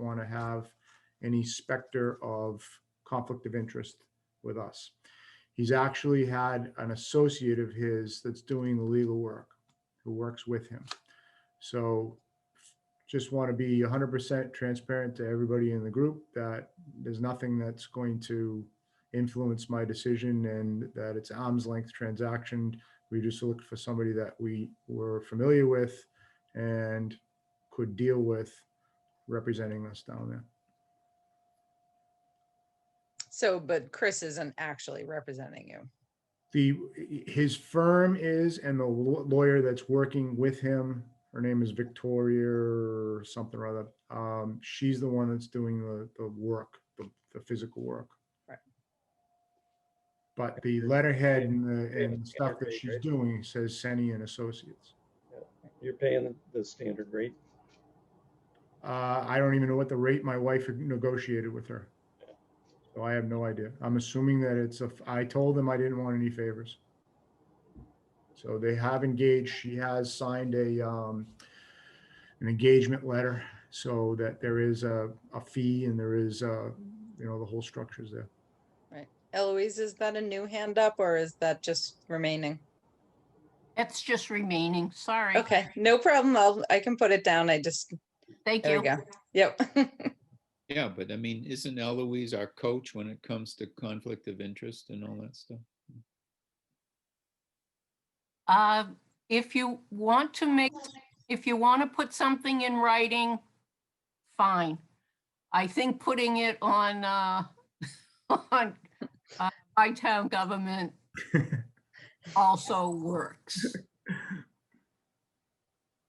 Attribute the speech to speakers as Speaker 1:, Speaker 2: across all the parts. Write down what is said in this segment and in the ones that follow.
Speaker 1: want to have any specter of conflict of interest with us. He's actually had an associate of his that's doing the legal work, who works with him. So just want to be hundred percent transparent to everybody in the group that there's nothing that's going to influence my decision and that it's arm's length transaction. We just looked for somebody that we were familiar with and could deal with representing us down there.
Speaker 2: So, but Chris isn't actually representing you.
Speaker 1: The, his firm is, and the law- lawyer that's working with him, her name is Victoria or something or other. Um, she's the one that's doing the, the work, the, the physical work.
Speaker 2: Right.
Speaker 1: But the letterhead and the,
Speaker 3: And-
Speaker 1: and the stuff that she's doing says Seni and Associates.
Speaker 3: You're paying the- the standard rate.
Speaker 1: Uh, I don't even know what the rate my wife negotiated with her. So I have no idea. I'm assuming that it's a, I told them I didn't want any favors. So they have engaged, she has signed a, um, an engagement letter so that there is a, a fee and there is, uh, you know, the whole structure's there.
Speaker 2: Eloise, is that a new hand up or is that just remaining?
Speaker 4: That's just remaining, sorry.
Speaker 2: Okay, no problem. I'll, I can put it down. I just,
Speaker 4: Thank
Speaker 2: there
Speaker 4: you.
Speaker 2: we go. Yep.
Speaker 5: Yeah, but I mean, isn't Eloise our coach when it comes to conflict of interest and all that stuff?
Speaker 4: Uh, If you want to make, if you want to put something in writing, fine. I think putting it on, uh, on uh, by town government also works.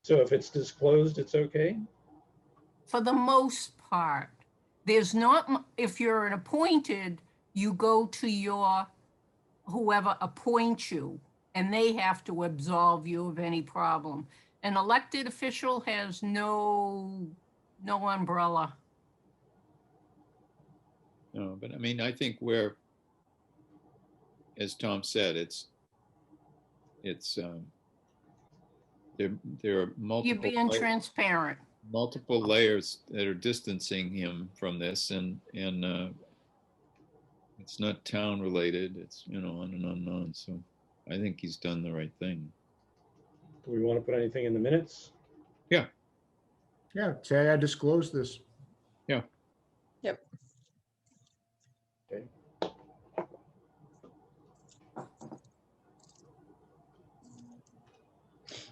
Speaker 3: So if it's disclosed, it's okay?
Speaker 4: for the most part. There's not, mu- if you're an appointed, you go to your, whoever appoints you, and they have to absolve you of any problem. An elected official has no, no umbrella.
Speaker 5: No, but I mean, I think we're, as Tom said, it's, it's, um, there, there are
Speaker 4: You're
Speaker 5: multiple,
Speaker 4: being
Speaker 5: la-
Speaker 4: transparent.
Speaker 5: multiple layers that are distancing him from this and, and, uh, it's not town related, it's, you know, on and on and on, so I think he's done the right thing.
Speaker 3: Do we want to put anything in the minutes?
Speaker 1: Yeah, say I disclosed this.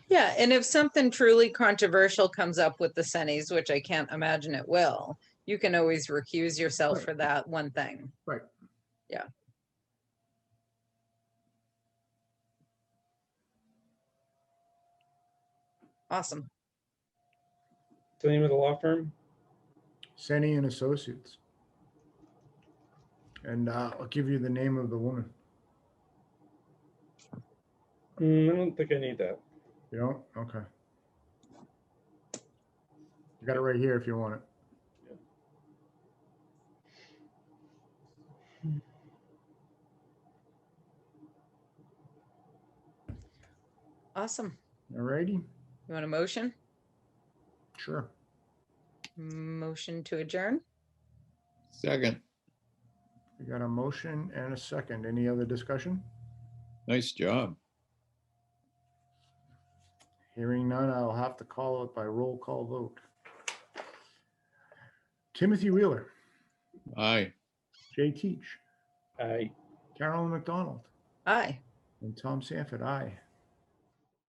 Speaker 2: Yeah, and if something truly controversial comes up with the Sennies, which I can't imagine it will, you can always recuse yourself
Speaker 1: Right.
Speaker 2: for that one thing. Awesome.
Speaker 3: What's The name of the law firm?
Speaker 1: Seni and Associates. And, uh, I'll give you the name of the woman,
Speaker 3: Mm, I don't think I need that.
Speaker 1: you know? Okay. I got it right here if you want it.
Speaker 2: Awesome.
Speaker 1: Alrighty,
Speaker 2: You want a motion?
Speaker 1: sure.
Speaker 2: Motion to adjourn?
Speaker 5: Second,
Speaker 1: We got a motion and a second. Any other discussion?
Speaker 5: nice job.
Speaker 1: Hearing none, I'll have to call it by roll call vote. Timothy Wheeler,
Speaker 5: Aye.
Speaker 1: Jay Teach,
Speaker 3: I,
Speaker 1: Carolyn McDonald,
Speaker 2: Aye.
Speaker 1: and Tom Sanford, aye.